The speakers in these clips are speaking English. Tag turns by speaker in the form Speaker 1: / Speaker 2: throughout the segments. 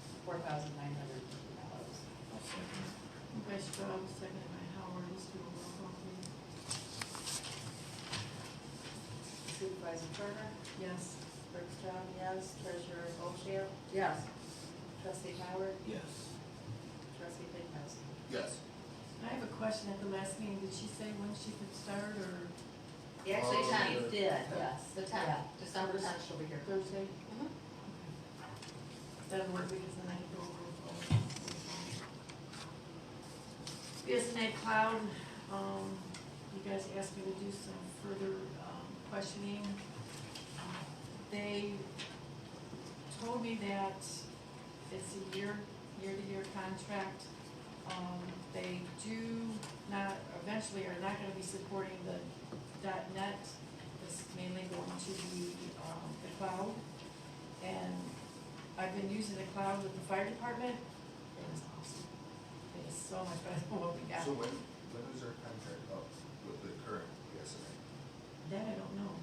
Speaker 1: thousand nine hundred dollars.
Speaker 2: By Straub, seconded by Howard, let's do a roll call, please.
Speaker 1: Supervisor Turner,
Speaker 2: Yes.
Speaker 1: Clerk Strong, yes. Treasurer Bochamp,
Speaker 2: Yes.
Speaker 1: trustee Howard,
Speaker 3: Yes.
Speaker 1: trustee Bigness.
Speaker 3: Yes.
Speaker 2: I have a question at the last meeting, did she say when she could start or
Speaker 4: Actually,
Speaker 3: Oh,
Speaker 4: ten,
Speaker 3: good.
Speaker 1: Did, yes.
Speaker 4: the ten,
Speaker 1: Yeah.
Speaker 4: December ten, she'll be here.
Speaker 2: Thursday?
Speaker 4: Mhm.
Speaker 1: Mm-hmm.
Speaker 2: That'll work because then I can go over. BSNA Cloud, um, you guys asked me to do some further, um, questioning. They told me that it's a year, year-to-year contract. Um, they do not, eventually are not gonna be supporting the dot net. This is mainly going to be, um, the cloud. And I've been using the cloud with the fire department. It is awesome. It is so much better than what we got.
Speaker 3: So when, when is our contract up with the current BSNA?
Speaker 2: That I don't know.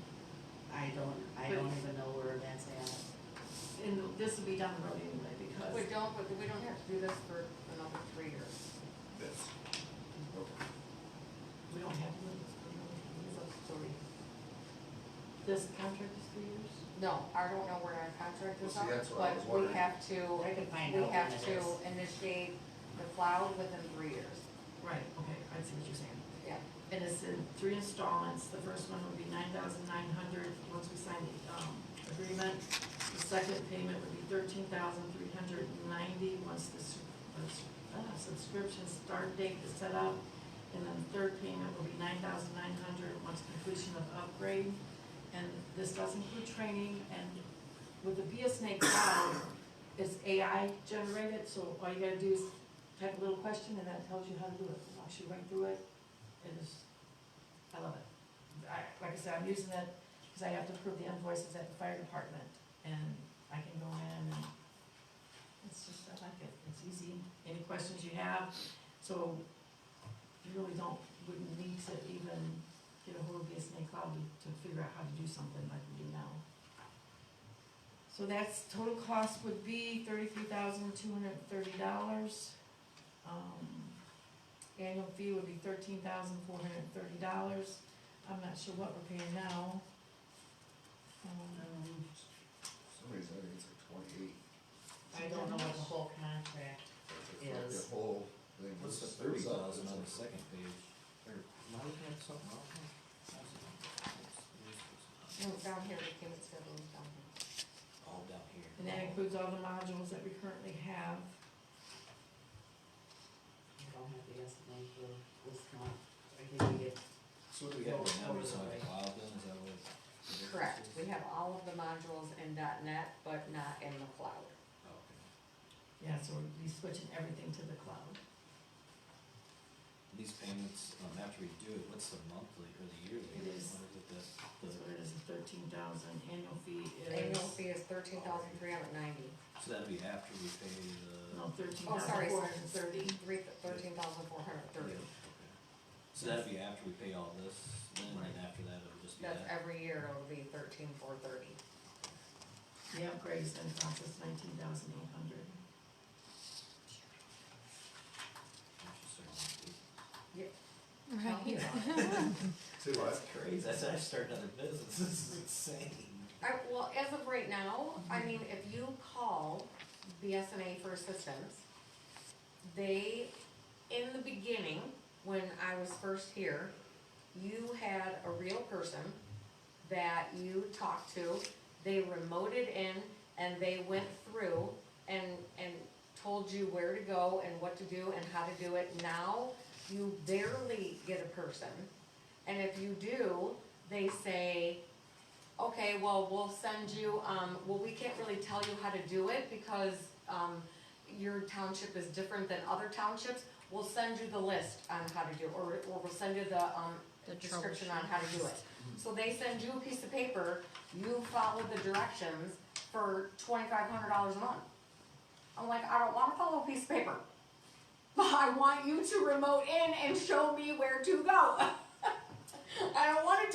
Speaker 1: I don't, I don't even know where that's at.
Speaker 2: And this will be down the road anyway because.
Speaker 4: We don't, but we don't have to do this for another three years.
Speaker 3: This. Okay.
Speaker 2: We don't have to.
Speaker 4: It's up to three.
Speaker 2: This contract is three years?
Speaker 4: No, I don't know where our contract is
Speaker 3: Well,
Speaker 4: up,
Speaker 3: see, that's what I was
Speaker 4: but we
Speaker 3: wondering.
Speaker 4: have to,
Speaker 1: I can find
Speaker 4: we
Speaker 1: out
Speaker 4: have
Speaker 1: when it
Speaker 4: to
Speaker 1: is.
Speaker 4: initiate the cloud within three years.
Speaker 2: Right, okay, I see what you're saying.
Speaker 4: Yeah.
Speaker 2: And it's in three installments. The first one would be nine thousand nine hundred, once we sign the, um, agreement. The second payment would be thirteen thousand three hundred ninety, once the, s- the s- uh, subscription start date is set up. And then the third payment will be nine thousand nine hundred, once completion of upgrade. And this does include training, and with the BSNA cloud, it's AI generated, so all you gotta do is type a little question, and then it tells you how to do it, It walks you right through it. It is, I love it. I, like I said, I'm using it because I have to approve the invoices at the fire department, and I can go in and it's just, I like it, it's easy, any questions you have, so you really don't, wouldn't need to even get a hold of BSNA Cloud to, to figure out how to do something like we do now. So that's, total cost would be thirty-three thousand two hundred and thirty dollars. Um, annual fee would be thirteen thousand four hundred and thirty dollars. I'm not sure what we're paying now. Um,
Speaker 3: For some reason, I think it's like twenty-eight.
Speaker 1: I don't know what the whole contract,
Speaker 3: It's like
Speaker 1: Is.
Speaker 3: The whole thing.
Speaker 5: What's the
Speaker 3: was-
Speaker 5: thirty
Speaker 3: was up.
Speaker 5: thousand on the second page? Or, am I looking at something wrong? here?
Speaker 4: No, it's down here, the payment schedule is down here.
Speaker 5: All down here.
Speaker 2: And that includes all the modules that we currently have.
Speaker 1: I don't have the estimate for this month, I think we get,
Speaker 5: So what do we have right now, we just have a cloud then, is that what? the difference
Speaker 4: Correct,
Speaker 5: is?
Speaker 4: we have all of the modules in dot net, but not in the cloud.
Speaker 5: Oh, okay.
Speaker 2: Yeah, so we'll be switching everything to the cloud.
Speaker 5: These payments, um, after we do it, what's the monthly or the yearly?
Speaker 2: It is-
Speaker 5: What is it, the-
Speaker 2: That's
Speaker 5: the-
Speaker 2: what it is, thirteen thousand, annual fee is.
Speaker 4: Annual fee is thirteen thousand three hundred ninety.
Speaker 5: So that'd be after we pay the.
Speaker 2: No, thirteen
Speaker 4: Oh,
Speaker 2: thousand
Speaker 4: sorry,
Speaker 2: four hundred and thirty.
Speaker 4: Three, thirteen thousand four hundred
Speaker 5: Yeah,
Speaker 4: thirty.
Speaker 5: okay. So that'd be after we pay all this, then, and after that, it'll just be
Speaker 4: That's
Speaker 5: that?
Speaker 4: every year, it'll be thirteen four thirty.
Speaker 2: The upgrades then cost us nineteen thousand eight hundred.
Speaker 5: Interesting.
Speaker 3: Say what?
Speaker 5: That's crazy, that's how I start another business, this is insane.
Speaker 4: I, well, as of right now, I mean, if you call BSNA for assistance, they, in the beginning, when I was first here, you had a real person that you talked to, they remoted in and they went through and, and told you where to go and what to do and how to do it. Now, you barely get a person, and if you do, they say, okay, well, we'll send you, um, well, we can't really tell you how to do it because, um, your township is different than other townships. We'll send you the list on how to do, it, or, or we'll send you the, um, description on how to do it. So they send you a piece of paper, you follow the directions for twenty-five hundred dollars a month. I'm like, I don't wanna follow a piece of paper. But I want you to remote in and show me where to go. I don't